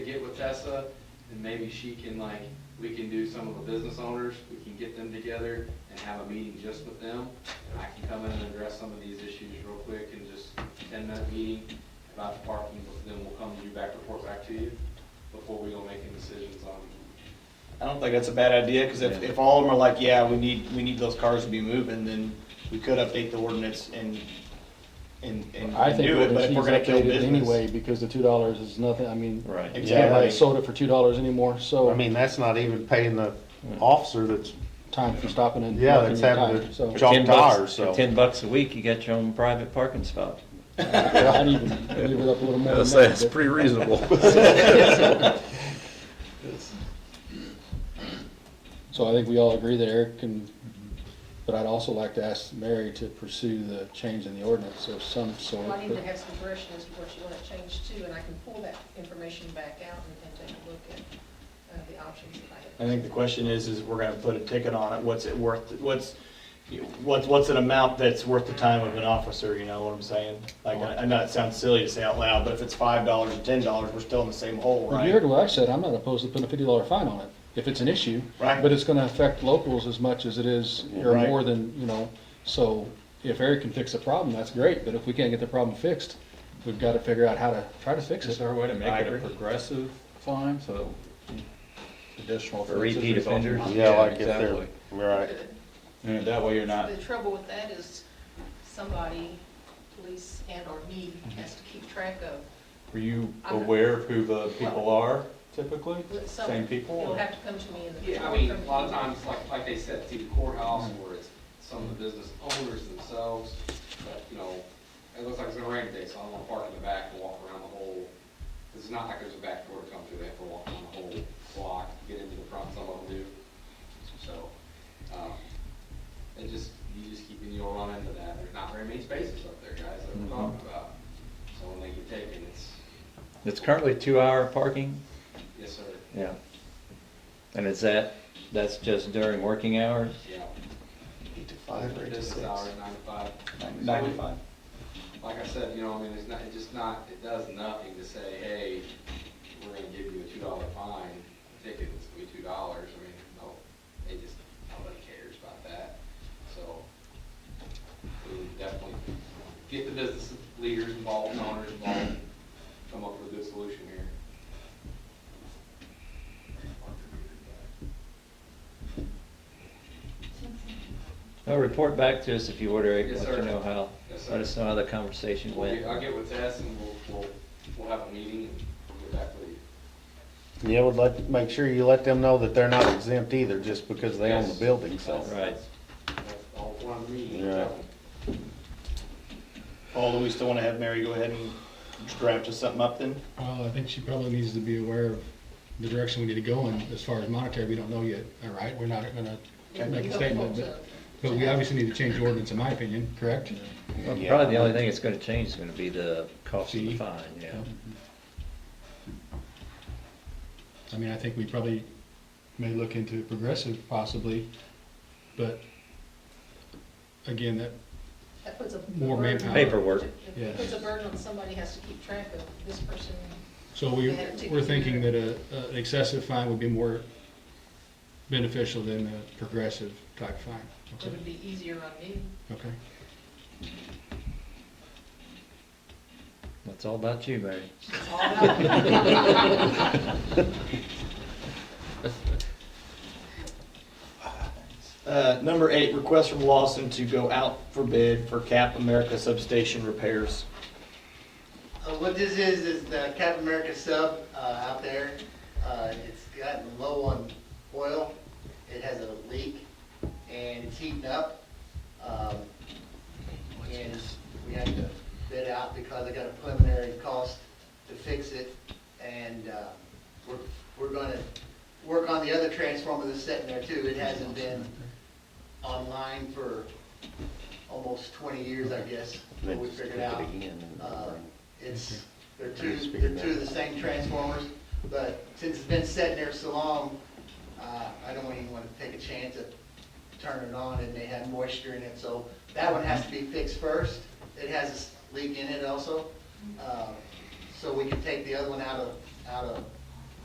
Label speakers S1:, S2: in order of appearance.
S1: get with Tessa, and maybe she can like, we can do some of the business owners, we can get them together and have a meeting just with them. And I can come in and address some of these issues real quick in just ten minute meeting about the parking, but then we'll come to you back, report back to you before we go making decisions on.
S2: I don't think that's a bad idea, because if, if all of them are like, yeah, we need, we need those cars to be moving, then we could update the ordinance and, and, and
S3: I think
S2: do it, but
S3: ordinance
S2: if we're
S3: needs
S2: gonna kill
S3: updated
S2: business.
S3: anyway, because the two dollars is nothing, I mean,
S4: Right.
S3: you
S2: Yeah,
S3: can't buy
S2: like-
S3: soda for two dollars anymore,
S4: I
S3: so
S4: mean, that's not even paying the officer that's,
S3: time for stopping and.
S4: yeah,
S3: marking
S4: that's
S3: your
S4: having
S3: time,
S4: to
S3: So,
S4: jump
S5: Ten bucks-
S4: tires, so.
S5: for Ten bucks a week, you got your own private parking spot.
S3: I'd even leave it up a little more. than that, but-
S4: pretty reasonable.
S3: So I think we all agree that Eric can, but I'd also like to ask Mary to pursue the change in the ordinance of some sort.
S6: Well, I need
S3: but-
S6: to have some direction as to what you want it changed to, and I can pull that information back out and, and take a look at, uh, the options that I
S2: I
S6: have.
S2: think the question is, is we're gonna put a ticket on it, what's it worth, what's, what's, what's an amount that's worth the time of an officer, you know what I'm saying? Like, I I know it sounds silly to say out loud, but if it's five dollars or ten dollars, we're still in the same hole,
S3: Well, You heard
S2: right?
S3: what I said, I'm not opposed to putting a fifty dollar fine on it, if it's an issue.
S2: Right.
S3: But it's gonna affect locals as much as it is, or
S2: Right.
S3: more than, you know, so if Eric can fix the problem, that's great, but if we can't get the problem fixed, we've gotta figure out how to try to fix
S7: Is
S3: it.
S7: there a way to make
S2: I
S7: it a
S2: agree.
S7: progressive fine, so additional
S5: For
S7: offenses
S5: repeat
S7: or something?
S5: offenders?
S4: Yeah, like if
S7: exactly.
S4: they're, right.
S7: And that way you're not,
S6: The trouble with that is somebody, police and or me, has to keep track of.
S7: were you
S6: I'm not-
S7: aware of who the people are typically?
S6: what some-
S7: Same people?
S6: You'll
S7: or-
S6: have to come to me in the.
S1: Yeah, I mean, a lot of times, like, like they said, through the courthouse, or it's some of the business owners themselves, but, you know, it looks like it's gonna rain today, so I don't wanna park in the back and walk around the whole, it's not like there's a back door to come through, they have to walk around the whole block, get into the front, some of them do. So, um, it just, you just keep, and you'll run into that, there's not very many spaces up there, guys, that we're talking about. So when they get taken, it's,
S5: It's currently two-hour parking?
S1: yes, sir,
S5: Yeah. And is that, that's just during working hours?
S1: yeah.
S2: Eight to five or eight to
S1: Business
S2: six?
S1: hours, nine to five.
S2: Nine to five.
S1: like I said, you know, I mean, it's not, it's just not, it does nothing to say, hey, we're gonna give you a two dollar fine, ticket is gonna be two dollars, I mean, no, they just, nobody cares about that, so. We would definitely get the business leaders involved, owners involved, come up with a good solution here.
S5: Well, report back to us if you order it,
S1: Yes,
S5: let
S1: sir.
S5: you know how.
S1: Yes, sir.
S5: Let us know how the conversation
S1: We'll
S5: went.
S1: get, I'll get with Tess and we'll, we'll, we'll have a meeting and we'll get back with you.
S4: Yeah, would let, make sure you let them know that they're not exempt either, just because they own the
S1: Yes.
S4: building, so.
S1: That's-
S5: Right.
S1: That's all one meeting.
S4: Yeah.
S2: Paul, do we still wanna have Mary go ahead and draft us something up then?
S3: Well, I think she probably needs to be aware of the direction we need to go in as far as monetary, we don't know yet, all right? We're not gonna make a statement, but, but we obviously need to change the ordinance, in my opinion, correct?
S5: Well, Probably the only thing that's gonna change is gonna be the cost of the
S3: Fee.
S5: fine, yeah.
S3: I mean, I think we probably may look into progressive possibly, but again, that,
S6: That puts a.
S3: More
S6: burden on-
S5: Paperwork.
S3: Yeah.
S6: It puts a burden on somebody, has to keep track of this person.
S3: so we,
S6: They have to-
S3: we're thinking that a, a- an excessive fine would be more beneficial than a progressive type fine.
S6: It
S3: Okay,
S6: would be easier on me.
S3: okay.
S5: That's all about you, Mary.
S6: It's all about-
S2: Uh, number eight, request from Lawson to go out for bid for Cap America substation repairs.
S8: Uh, What this is, is the Cap America sub uh, out there. Uh, It's gotten low on oil, it has a leak, and it's heating up. Um, And we have to bid out because I got a preliminary cost to fix it. And uh, we're, we're gonna work on the other transformer that's sitting there too. It hasn't been online for almost 20 years, I guess, but we figured out. Uh, It's, they're two, they're two of the same transformers, but since it's been sitting there so long, uh, I don't even want to take a chance at turning it on and they have moisture in it, so that one has to be fixed first. It has a s- leak in it also, uh, so we can take the other one out of, out of